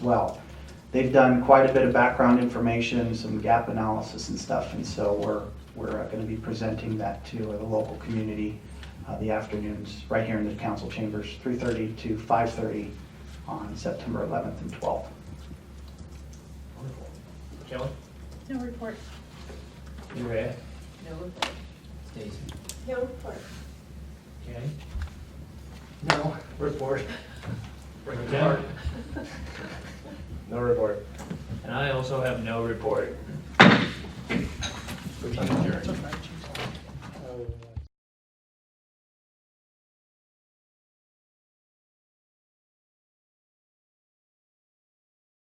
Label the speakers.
Speaker 1: well. They've done quite a bit of background information, some gap analysis and stuff, and so we're, we're going to be presenting that to the local community uh, the afternoons, right here in the council chambers, 3:30 to 5:30 on September 11th and 12th.
Speaker 2: Wonderful. Kelly?
Speaker 3: No report.
Speaker 2: Leanne?
Speaker 3: No report.
Speaker 2: Stacy?
Speaker 3: No report.
Speaker 2: Okay.
Speaker 4: No, report.
Speaker 2: Bring it down.
Speaker 4: No report.
Speaker 2: And I also have no report.